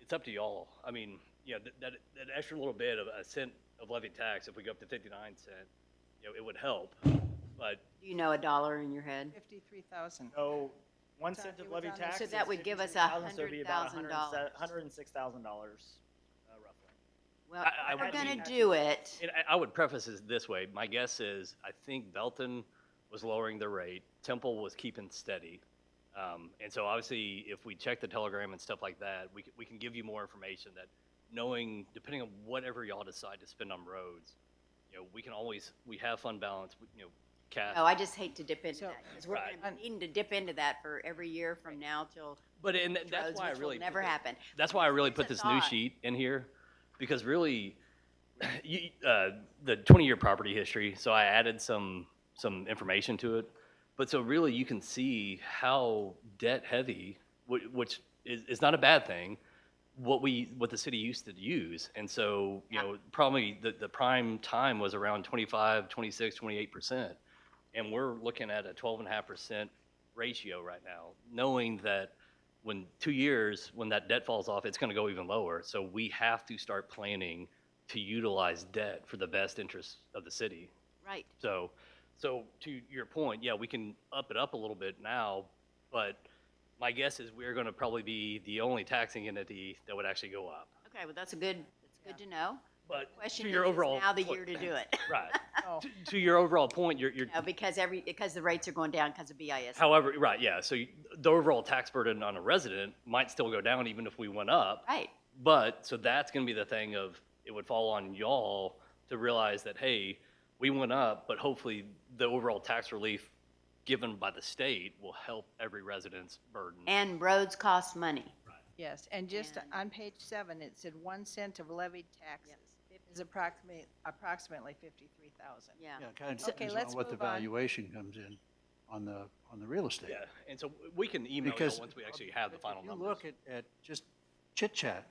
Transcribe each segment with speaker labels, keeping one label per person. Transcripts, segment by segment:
Speaker 1: it's up to y'all. I mean, you know, that, that, that extra little bit of a cent of levy tax, if we go up to fifty-nine cent, you know, it would help. But
Speaker 2: Do you know a dollar in your head?
Speaker 3: 53,000.
Speaker 4: So one
Speaker 3: So
Speaker 4: cent
Speaker 3: it
Speaker 4: of
Speaker 3: was
Speaker 4: levy
Speaker 3: on the-
Speaker 4: tax.
Speaker 2: So that
Speaker 4: is
Speaker 2: would give us
Speaker 4: $53,000, so it'd be about
Speaker 2: $100,000.
Speaker 4: Hundred and six thousand dollars, uh, roughly.
Speaker 2: Well,
Speaker 1: I- I
Speaker 2: if we're
Speaker 1: would
Speaker 2: gonna
Speaker 4: be-
Speaker 2: do it,
Speaker 1: And I, I would preface this this way. My guess is, I think Belton was lowering the rate, Temple was keeping steady. Um, and so obviously, if we check the telegram and stuff like that, we, c- we can give you more information that knowing, depending on whatever y'all decide to spend on roads, you know, we can always, we have fund balance, we- you know, cash.
Speaker 2: oh, I just hate to dip into
Speaker 3: So-
Speaker 2: that, because we're
Speaker 1: Right.
Speaker 2: gonna be needing to dip into that for every year from now till
Speaker 1: But, and th- that's
Speaker 2: roads,
Speaker 1: why I
Speaker 2: which
Speaker 1: really.
Speaker 2: will never
Speaker 1: put the-
Speaker 2: happen.
Speaker 1: That's why I really
Speaker 2: Here's
Speaker 1: put
Speaker 2: a
Speaker 1: this new
Speaker 2: thought.
Speaker 1: sheet in here, because really, you, uh, the twenty-year property history, so I added some, some information to it. But so really, you can see how debt-heavy, which, which is, is not a bad thing, what we, what the city used to use. And so, you
Speaker 2: Yeah.
Speaker 1: know, probably the, the prime time was around 25, 26, 28 percent. And we're looking at a twelve and a half percent ratio right now, knowing that when two years, when that debt falls off, it's going to go even lower. So we have to start planning to utilize debt for the best interests of the city.
Speaker 2: Right,
Speaker 1: So, so to your point, yeah, we can up it up a little bit now, but my guess is we're going to probably be the only taxing entity that would actually go up.
Speaker 2: okay, well, that's a good, that's good to know.
Speaker 1: But
Speaker 2: Question
Speaker 1: to
Speaker 2: is,
Speaker 1: your
Speaker 2: is
Speaker 1: overall
Speaker 2: now the
Speaker 1: point-
Speaker 2: year to do it,
Speaker 1: right.
Speaker 3: Oh.
Speaker 1: To, to your overall point, you're, you're
Speaker 2: You know, because every, because the rates are going down because of BIS.
Speaker 1: However, right, yeah, so you- the overall tax burden on a resident might still go down even if we went up.
Speaker 2: Right,
Speaker 1: But, so that's gonna be the thing of, it would fall on y'all to realize that, hey, we went up, but hopefully the overall tax relief given by the state will help every resident's burden.
Speaker 2: and roads cost money.
Speaker 3: Yes, and just
Speaker 2: And-
Speaker 3: on page seven, it said one cent of levied taxes is approximately, approximately 53,000.
Speaker 2: Yeah,
Speaker 5: Yeah, it kind of
Speaker 3: Okay,
Speaker 5: depends
Speaker 3: let's
Speaker 5: on what the
Speaker 3: move on.
Speaker 5: valuation comes in on the, on the real estate.
Speaker 1: Yeah, and so we can email y'all
Speaker 5: Because.
Speaker 1: once we actually have the
Speaker 5: if
Speaker 1: final
Speaker 5: you
Speaker 1: numbers.
Speaker 5: look at, at just chit chat,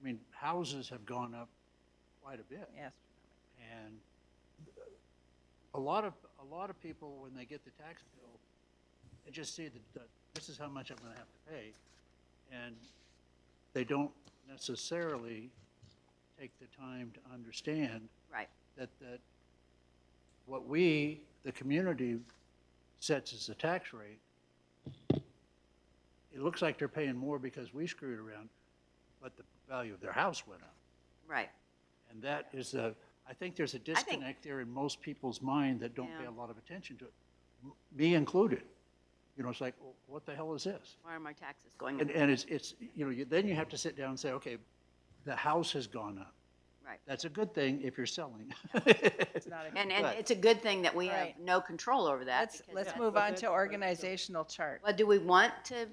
Speaker 5: I mean, houses have gone up quite a bit.
Speaker 3: Yes.
Speaker 5: And a lot of, a lot of people, when they get the tax bill, they just see that, that this is how much I'm gonna have to pay. And they don't necessarily take the time to understand
Speaker 2: right,
Speaker 5: that, that what we, the community, sets as the tax rate, it looks like they're paying more because we screwed around, but the value of their house went up.
Speaker 2: right.
Speaker 5: And that is a, I think there's a
Speaker 2: think-
Speaker 5: disconnect there in most people's mind that don't pay
Speaker 2: Yeah.
Speaker 5: a lot of attention to it, m- me included. You know, it's like, "Well, what the hell is this?
Speaker 2: Why are my taxes going up?
Speaker 5: And, and it's, it's, you know, you- then you have to sit down and say, okay, the house has gone up.
Speaker 2: Right.
Speaker 5: That's a good thing if you're selling.
Speaker 3: It's not a-
Speaker 2: And, and
Speaker 5: Right.
Speaker 2: it's a good thing that we have
Speaker 3: Right.
Speaker 2: no control over that.
Speaker 3: Let's,
Speaker 2: because
Speaker 3: let's
Speaker 2: that-
Speaker 3: move on to organizational chart.
Speaker 2: Well, do we want to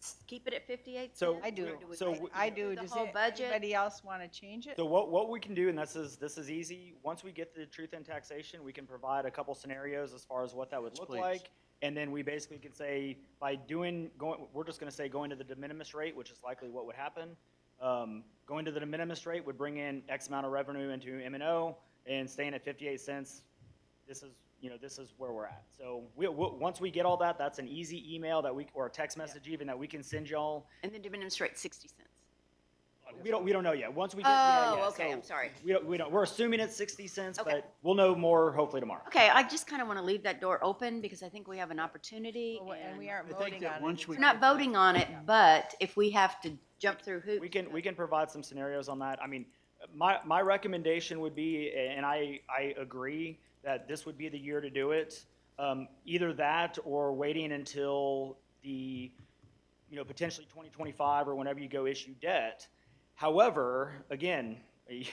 Speaker 2: s- keep it at fifty-eight
Speaker 4: So-
Speaker 2: cents?
Speaker 3: I
Speaker 2: or
Speaker 3: do.
Speaker 2: we
Speaker 4: So
Speaker 2: want to
Speaker 4: we-
Speaker 3: I do,
Speaker 2: The
Speaker 3: does
Speaker 2: whole
Speaker 3: it-
Speaker 2: budget,
Speaker 3: anybody else want to change it?
Speaker 4: So what, what we can do, and this is, this is easy, once we get the truth in taxation, we can provide a couple scenarios as far as what that would
Speaker 5: Yes,
Speaker 4: look
Speaker 5: please.
Speaker 4: like. And then we basically could say, by doing, going, we're just gonna say going to the de minimis rate, which is likely what would happen. Um, going to the de minimis rate would bring in X amount of revenue into M and O, and staying at fifty-eight cents, this is, you know, this is where we're at. So we, we, once we get all that, that's an easy email that we, or a text message even that we can send y'all.
Speaker 2: and then demonstrate sixty cents.
Speaker 4: We don't, we don't know yet. Once we get, yeah, yeah,
Speaker 2: Oh, okay,
Speaker 4: so- Mhm.
Speaker 2: I'm sorry.
Speaker 4: we don't, we don't, we're assuming it's 60 cents,
Speaker 2: Okay.
Speaker 4: but we'll know more hopefully tomorrow.
Speaker 2: Okay, I just kind of want to leave that door open because I think we have an opportunity
Speaker 3: Well, And
Speaker 2: and
Speaker 3: we
Speaker 2: we're
Speaker 3: aren't
Speaker 5: I think
Speaker 3: voting
Speaker 5: that
Speaker 3: on it.
Speaker 5: once
Speaker 3: It's
Speaker 5: we-
Speaker 3: not-
Speaker 2: not voting on it, but if we have to jump through hoops.
Speaker 4: We can, we can provide some scenarios on that. I mean, my, my recommendation would be, and I, I agree that this would be the year to do it. Um, either that or waiting until the, you know, potentially 2025 or whenever you go issue debt. However, again, you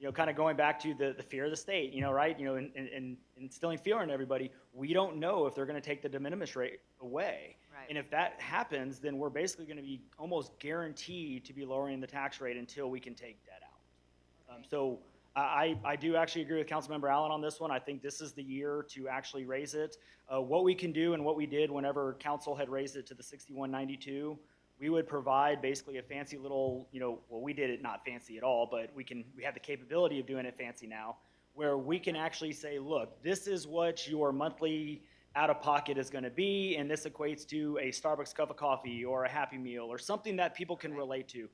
Speaker 4: know, kind of going back to the, the fear of the state, you know, right? You know, and, and- and instilling fear in everybody, we don't know if they're going to take the de minimis rate away.
Speaker 2: Right.
Speaker 4: And if that happens, then we're basically going to be almost guaranteed to be lowering the tax rate until we can take debt out. Um,
Speaker 3: Okay.
Speaker 4: So I, I I do actually agree with Councilmember Allen on this one. I think this is the year to actually raise it. Uh, What we can do and what we did whenever council had raised it to the 6192, we would provide basically a fancy little, you know, well, we did it not fancy at all, but we can, we have the capability of doing it fancy now, where we can actually say, look, this is what your monthly out-of-pocket is going to be, and this equates to a Starbucks cup of coffee or a Happy Meal or something that people can
Speaker 2: Right.
Speaker 4: relate to.